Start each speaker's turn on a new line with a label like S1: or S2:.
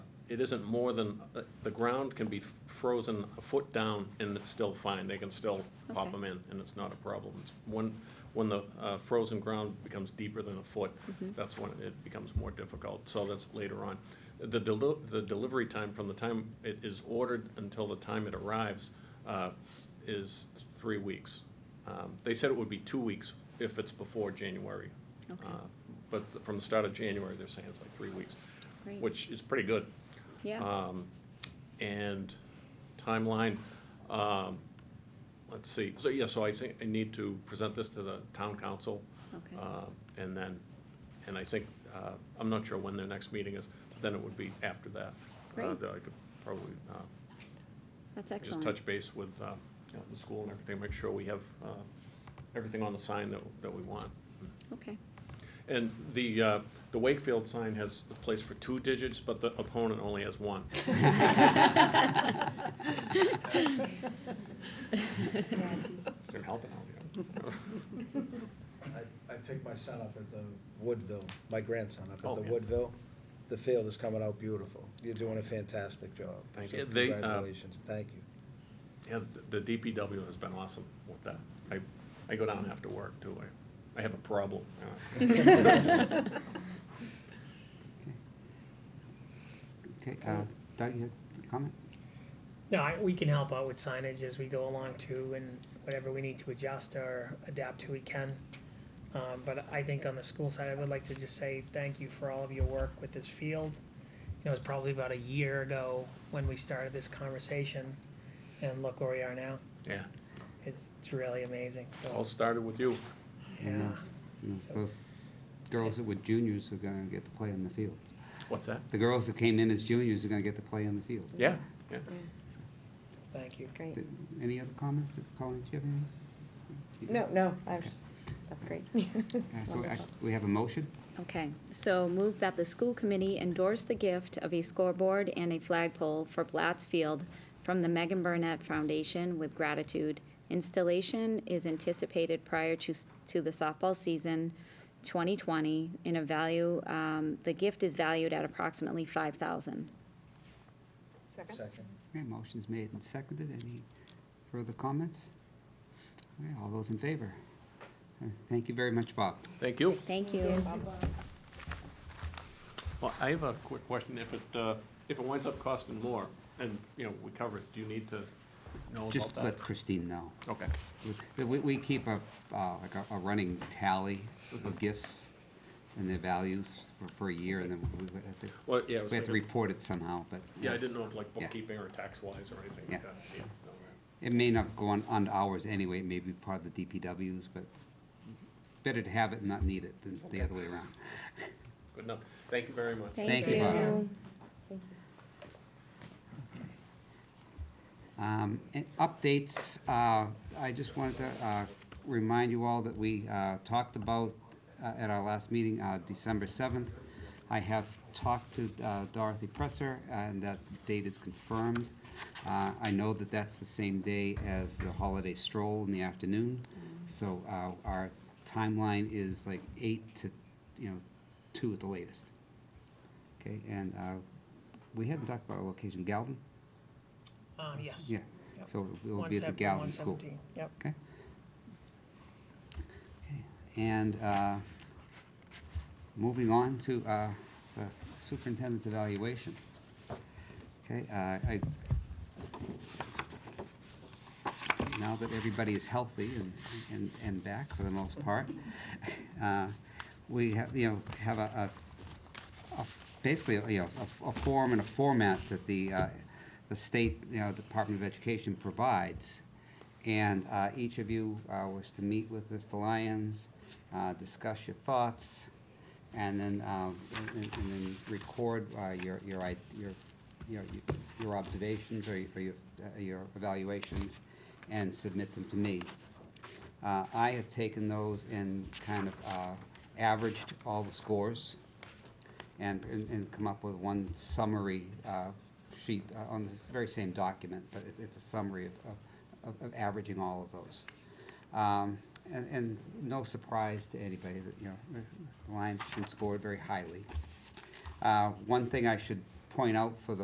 S1: it isn't more than, the- the ground can be frozen a foot down and it's still fine. They can still pop
S2: Okay.
S1: them in and it's not a problem. It's When, when the uh, frozen ground becomes deeper than a foot,
S2: Mm-hmm.
S1: that's when it becomes more difficult. So that's later on. The deli, the delivery time from the time it is ordered until the time it arrives uh, is three weeks. Um, They said it would be two weeks if it's before January.
S2: Okay.
S1: Uh, But from the start of January, they're saying it's like three weeks
S2: Great.
S1: which is pretty good.
S2: Yeah,
S1: Um, And timeline, um, let's see, so, yeah, so I think I need to present this to the town council.
S2: Okay.
S1: uh, And then, and I think, uh, I'm not sure when their next meeting is, but then it would be after that. uh,
S2: Great.
S1: That I could probably uh,
S2: that's
S1: just
S2: excellent.
S1: touch base with uh, you know, the school and everything, make sure we have uh, everything on the sign that, that we want.
S2: Okay,
S1: And the, uh, the Wakefield sign has a place for two digits, but the opponent only has one. Didn't help it out, yeah.
S3: I, I picked my son up at the Woodville, my grandson up
S1: Oh,
S3: at the
S1: yeah.
S3: Woodville. The field is coming out beautiful. You're doing a fantastic job.
S1: Thank
S3: So
S1: you. They, uh,
S3: Congratulations, thank you.
S1: Yeah, the the DPW has been awesome with that. I, I go down after work too. I, I have a problem. you know.
S4: Okay, uh, Doug, you had a comment?
S5: No, I, we can help out with signage as we go along too, and whatever we need to adjust or adapt to, we can. Um, but I think on the school side, I would like to just say thank you for all of your work with this field. You know, it was probably about a year ago when we started this conversation, and look where we are now.
S1: Yeah,
S5: It's, it's really amazing,
S1: all
S5: so,
S1: started with you.
S5: yeah,
S4: And those- and those- those girls that were juniors are gonna get to play on the field.
S1: What's that?
S4: The girls that came in as juniors are gonna get to play on the field.
S1: Yeah, yeah.
S5: thank you.
S6: It's great.
S4: Did- Any other comments? Colin, do you have any?
S6: No, no, I was, that's great.
S4: Uh,
S6: It's
S4: So I-
S6: wonderful.
S4: we have a motion?
S2: okay. So move that the school committee endorse the gift of a scoreboard and a flagpole for Blatts Field from the Megan Burnett Foundation with gratitude. Installation is anticipated prior to, s- to the softball season 2020 in a value, um, the gift is valued at approximately 5,000.
S6: Second?
S3: Second.
S4: Okay, motion's made and seconded. Any further comments? Okay, all those in favor? Uh, Thank you very much, Bob.
S1: Thank you.
S2: Thank you.
S1: Well, I have a quick question. If it, uh, if it winds up costing more and, you know, we cover it, do you need to know about
S4: Just
S1: that?
S4: let Christine know.
S1: Okay,
S4: We- We, we keep a, uh, like a, a running tally of gifts and their values for, for a year, and then we, we have to,
S1: well, yeah. I was
S4: we have to
S1: thinking-
S4: report it somehow, but.
S1: Yeah, I didn't know if like
S4: Yeah.
S1: bookkeeping or tax-wise or anything like
S4: Yeah.
S1: that. Yeah, okay.
S4: It may not go on, on ours anyway, it may be part of the DPWs, but better to have it and not need it than the other way around.
S1: Good enough. Thank you very much.
S4: Thank you, Bob.
S6: Thank you.
S4: Um, and Updates, uh, I just wanted to uh, remind you all that we uh, talked about uh, at our last meeting, uh, December 7th. I have talked to uh, Dorothy Presser, and that date is confirmed. Uh, I know that that's the same day as the holiday stroll in the afternoon, so uh, our timeline is like 8 to, you know, 2 at the latest. Okay, and uh, we hadn't talked about a location, Galvin?
S5: Um, yes.
S4: Yeah,
S5: Yep.
S4: so we'll be at the
S5: 170,
S4: Galvin School.
S5: 117, Yep.
S4: Okay. Okay, And uh, moving on to uh, the superintendent's evaluation. Okay, uh, I, now that everybody is healthy and, and, and back for the most part, uh, we have, you know, have a, a- a- basically, you know, a- a form and a format that the, uh, the state, you know, Department of Education provides. And uh, each of you uh, was to meet with Mr. Lyons, uh, discuss your thoughts, and then, um, and and- and then record uh, your, your, i- your, your- your observations or your- or your, uh, your evaluations and submit them to me. Uh, I have taken those and kind of uh, averaged all the scores and, and and come up with one summary uh, sheet uh, on this very same document, but it- it's a summary of- of, of- of averaging all of those. Um, And, and no surprise to anybody that, you know, the Lions have been scored very highly. Uh, One thing I should point out for the